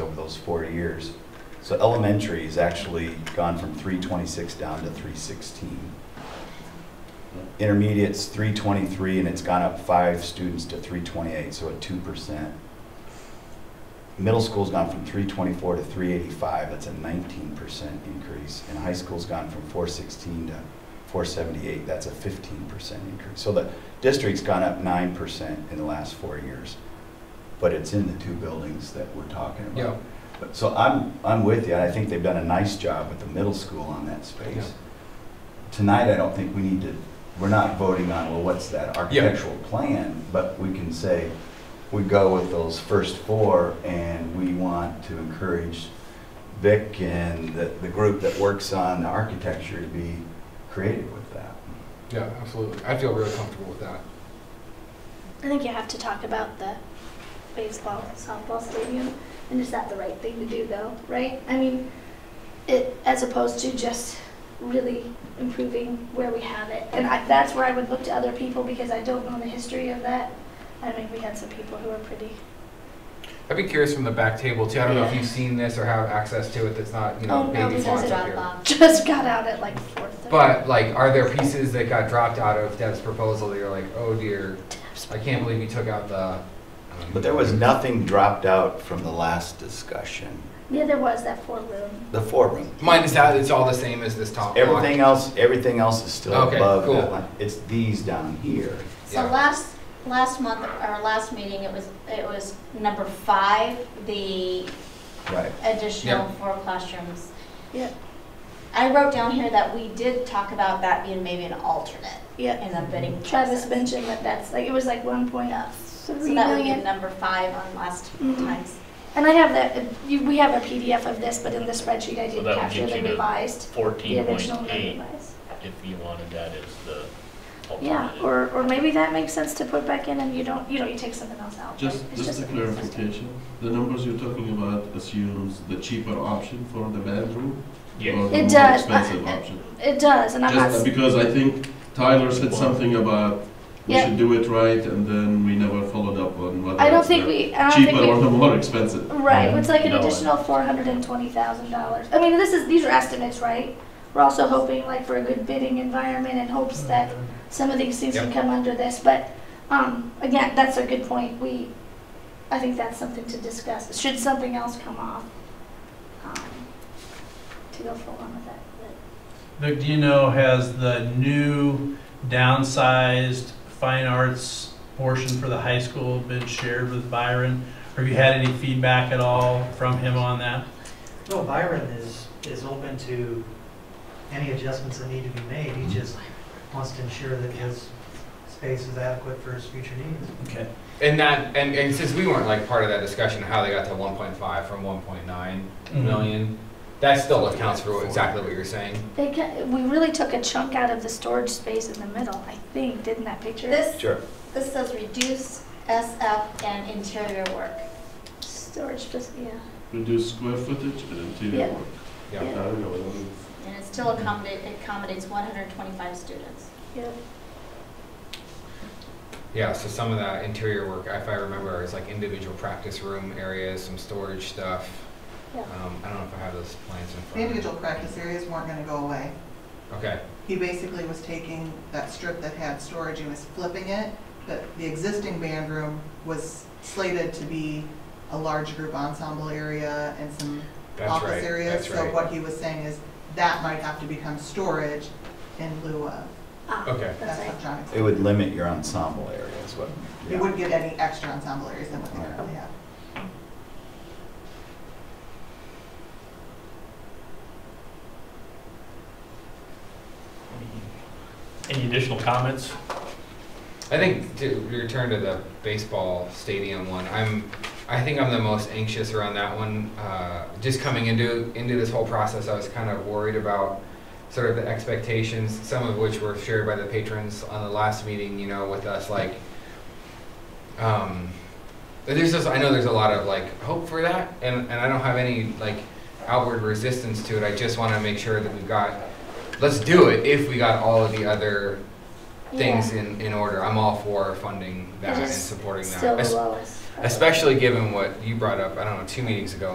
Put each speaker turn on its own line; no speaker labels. those four years. So elementary has actually gone from 326 down to 316. Intermediate's 323, and it's gone up five students to 328, so a 2%. Middle school's gone from 324 to 385, that's a 19% increase. And high school's gone from 416 to 478, that's a 15% increase. So the district's gone up 9% in the last four years, but it's in the two buildings that we're talking about.
Yeah,
But- So I'm, I'm with you, and I think they've done a nice job with the middle school on that space. Tonight, I don't think we need to, we're not voting on, well, what's that architectural plan? But we can say, we go with those first four, and we want to encourage Vic and the, the group that works on the architecture to be creative with that.
yeah, absolutely. I feel really comfortable with that.
I think you have to talk about the baseball, softball stadium, and is that the right thing to do though, right? I mean, it, as opposed to just really improving where we have it. And I, that's where I would look to other people because I don't know the history of that. I mean, we had some people who were pretty,
I'd be curious from the back table too. I don't know if
Yeah.
you've seen this or have access to it that's not, you know,
Oh, no,
maybe
because
font
it's
up
not
here.
um,
just got out at like four thirty.
But like, are there pieces that got dropped out of Deb's proposal that you're like, oh dear, I can't believe you took out the. um,
But there was nothing dropped out from the last discussion,
Yeah, there was that four room.
the four room.
Minus that, it's all the same as this top block.
Everything else, everything else is still
Okay,
above
cool.
that line. It's these down here.
So
Yeah.
last, last month, our last meeting, it was, it was number five, the
Right.
additional
Yeah.
four classrooms.
Yeah,
I wrote down here that we did talk about that being maybe an alternate
yeah.
in the bidding process.
Travis mentioned that that's like, it was like one point
Yeah.
three
So
Mm-hmm.
million.
that would be number five on last
Mhm.
times.
And I have that, you- we have a PDF of this, but in the spreadsheet, I
So
did
that would
capture
get
the
you to
revised, the
Fourteen point
original and the
eight,
revised.
if you wanted that as the
Yeah,
alternative.
or, or maybe that makes sense to put back in and you don't, you know, you take something else out.
Just,
It's
just a
an assessment.
clarification, the numbers you're talking about assumes the cheaper option for the bedroom? Or
Yes,
the
It
more
does.
expensive
I- I-
option?
It does, and I'm not,
Just
s-
because I think Tyler said something about we
Yeah.
should do it right and then we never followed up on whether
I don't
it's
think
the
we, I don't
Cheaper
think
or
we,
the more expensive?
right, it's like an
No.
additional four hundred and twenty thousand dollars. I mean, this is, these are estimates, right? We're also hoping like for a good bidding environment and hopes that some of these things can
Yep.
come under this, but, um, again, that's a good point, we, I think that's something to discuss, should something else come off, um, to go full on with that, but,
Vic, do you know, has the new downsized fine arts portion for the high school been shared with Byron? Or have you had any feedback at all from him on that?
No, Byron is, is open to any adjustments that need to be made. He just wants to ensure that his space is adequate for his future needs.
Okay.
And that, and, and since we weren't like part of that discussion, how they got to one point five from one point nine million,
Mm-hmm.
that still accounts for what- exactly what you're saying.
they ca we really took a chunk out of the storage space in the middle, I think, didn't that picture?
This,
Sure.
this says reduce SF and interior work.
Storage, just, yeah,
Reduce square footage and interior
Yeah.
work.
Yeah.
I don't know.
And it still accommodate, accommodates one hundred and twenty-five students.
yeah,
Yeah, so some of that interior work, if I remember, is like individual practice room areas, some storage stuff.
Yeah.
Um, I don't know if I have those plans in front of
The
me.
individual practice areas weren't gonna go away.
Okay,
He basically was taking that strip that had storage and was flipping it, but the existing band room was slated to be a large group ensemble area and some
that's
office
right,
areas.
that's
So
right.
what he was saying is that might have to become storage in lieu of,
ah,
Okay,
that's
that's
right.
what John
It
explained.
would limit your ensemble area is what.
He wouldn't get any extra ensemble areas than what they currently have.
Any additional comments?
I think to return to the baseball stadium one, I'm, I think I'm the most anxious around that one. Uh, just coming into, into this whole process, I was kind of worried about sort of the expectations, some of which were shared by the patrons on the last meeting, you know, with us, like, um, but there's just, I know there's a lot of like hope for that, and, and I don't have any like outward resistance to it. I just want to make sure that we've got, let's do it if we got all of the other things in, in order. I'm all for funding that
It
and
is
supporting
still
that.
the
Es-
lowest.
Especially given what you brought up, I don't know, two meetings ago